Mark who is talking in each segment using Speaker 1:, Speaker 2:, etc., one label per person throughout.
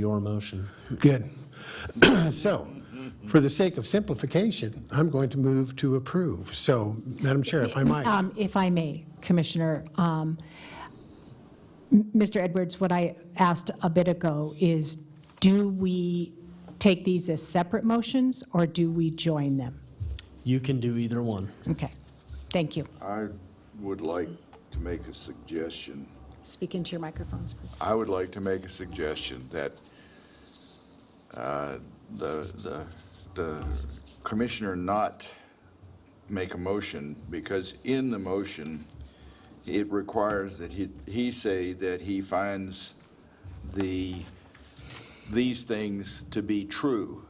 Speaker 1: your motion.
Speaker 2: Good. So, for the sake of simplification, I'm going to move to approve. So, Madam Chair, if I might,
Speaker 3: Um, If I may, Commissioner, um, M- Mr. Edwards, what I asked a bit ago is, do we take these as separate motions, or do we join them?
Speaker 1: You can do either one.
Speaker 3: Okay, thank you.
Speaker 4: I would like to make a suggestion.
Speaker 3: Speak into your microphones, please.
Speaker 4: I would like to make a suggestion that uh, the, the, the commissioner not make a motion, because in the motion, it requires that he, he say that he finds the, these things to be true,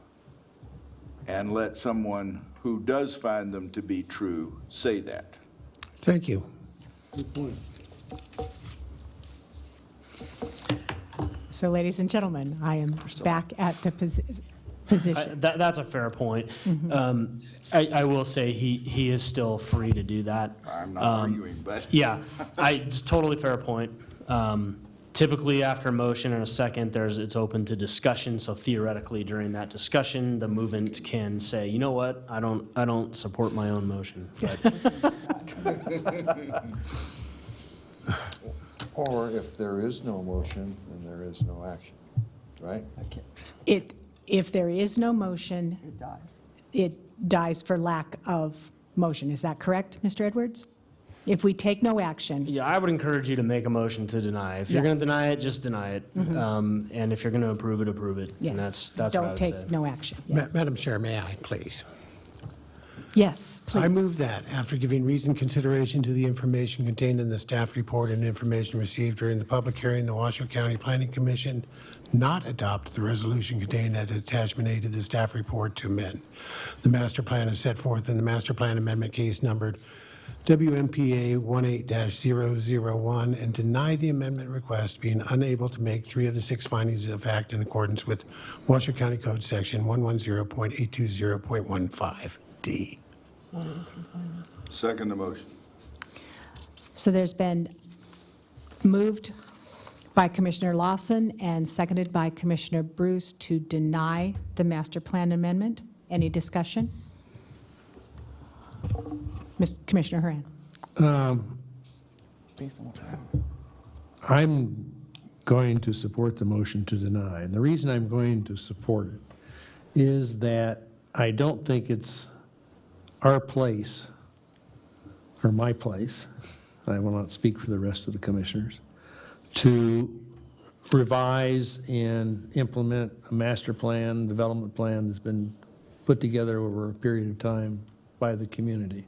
Speaker 4: and let someone who does find them to be true say that.
Speaker 2: thank you.
Speaker 3: So ladies and gentlemen, I am back at the posi- position.
Speaker 1: I- That, that's a fair point.
Speaker 3: Mm-hmm.
Speaker 1: Um, I, I will say he, he is still free to do that.
Speaker 4: I'm not arguing, but.
Speaker 1: Yeah, I, it's totally fair point. Um, Typically, after a motion and a second, there's, it's open to discussion, so theoretically, during that discussion, the movement can say, you know what, I don't, I don't support my own motion. But
Speaker 5: Or if there is no motion, then there is no action, right?
Speaker 3: It, if there is no motion. It dies. It dies for lack of motion. Is that correct, Mr. Edwards? If we take no action,
Speaker 1: Yeah, I would encourage you to make a motion to deny. If you're going
Speaker 3: Yes. Mm-hmm.
Speaker 1: to deny it, just deny it. Um, And if you're going to approve it, approve it. And that's,
Speaker 3: yes.
Speaker 1: that's what I
Speaker 3: Don't
Speaker 1: would say.
Speaker 3: take no action.
Speaker 2: Ma-
Speaker 3: Yes.
Speaker 2: Madam Chair, may I, please?
Speaker 3: Yes,
Speaker 2: I
Speaker 3: please.
Speaker 2: move that, after giving reasoned consideration to the information contained in the staff report and information received during the public hearing, the Washoe County Planning Commission not adopt the resolution contained at attachment A to the staff report to amend. The master plan is set forth in the master plan amendment case numbered WMPA 18-001 and deny the amendment request, being unable to make three of the six findings of fact in accordance with Washoe County Code Section 110.820.15D.
Speaker 4: Second the motion.
Speaker 3: So there's been moved by Commissioner Lawson and seconded by Commissioner Bruce to deny the master plan amendment. Any discussion? Miss- Commissioner Haran?
Speaker 6: I'm going to support the motion to deny, and the reason I'm going to support it is that I don't think it's our place, or my place, I will not speak for the rest of the commissioners, to revise and implement a master plan, development plan that's been put together over a period of time by the community.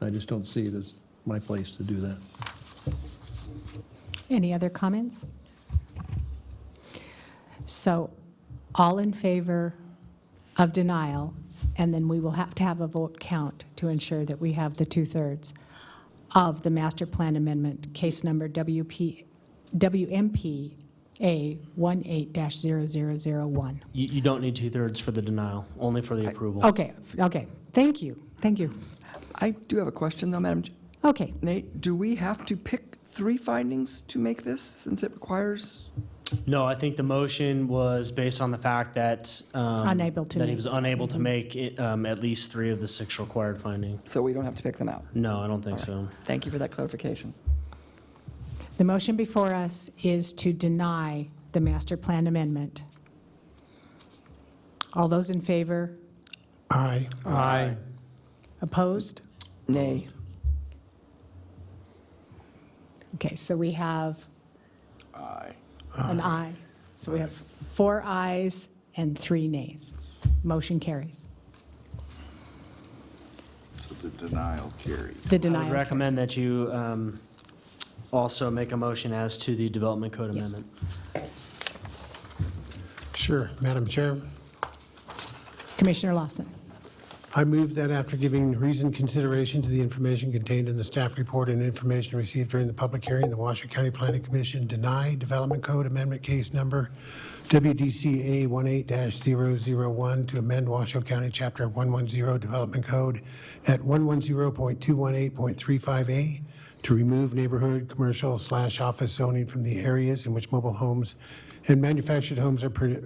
Speaker 6: I just don't see it as my place to do that.
Speaker 3: Any other comments? So all in favor of denial, and then we will have to have a vote count to ensure that we have the two-thirds of the master plan amendment, case number WP, WMPA 18-0001.
Speaker 1: You, you don't need two-thirds for the denial, only for the approval.
Speaker 3: Okay, okay, thank you, thank you.
Speaker 7: I do have a question, though, Madam Ch-
Speaker 3: Okay,
Speaker 7: Nate. Do we have to pick three findings to make this, since it requires?
Speaker 1: No, I think the motion was based on the fact that. um,
Speaker 3: Unable to
Speaker 1: That he
Speaker 3: make. Mm-hmm.
Speaker 1: was unable to make it, um, at least three of the six required findings.
Speaker 7: So we don't have to pick them out?
Speaker 1: No, I don't think
Speaker 7: All
Speaker 1: so.
Speaker 7: right. Thank you for that clarification.
Speaker 3: the motion before us is to deny the master plan amendment. All those in favor?
Speaker 2: Aye.
Speaker 6: Aye.
Speaker 3: Opposed?
Speaker 7: Nay.
Speaker 3: Okay, so we have
Speaker 4: Aye.
Speaker 3: an
Speaker 1: Ah.
Speaker 3: aye. So we have four ayes and three nays. Motion carries.
Speaker 4: So the denial carries.
Speaker 3: The
Speaker 1: I would
Speaker 3: denial.
Speaker 1: recommend that you um, also make a motion as to the Development Code
Speaker 3: Yes.
Speaker 1: Amendment.
Speaker 2: Sure, Madam Chair.
Speaker 3: Commissioner Lawson.
Speaker 2: I move that after giving reasoned consideration to the information contained in the staff report and information received during the public hearing, the Washoe County Planning Commission deny Development Code Amendment Case Number WDCA 18-001 to amend Washoe County Chapter 110 Development Code at 110.218.35A to remove neighborhood commercial slash office zoning from the areas in which mobile homes and manufactured homes are per-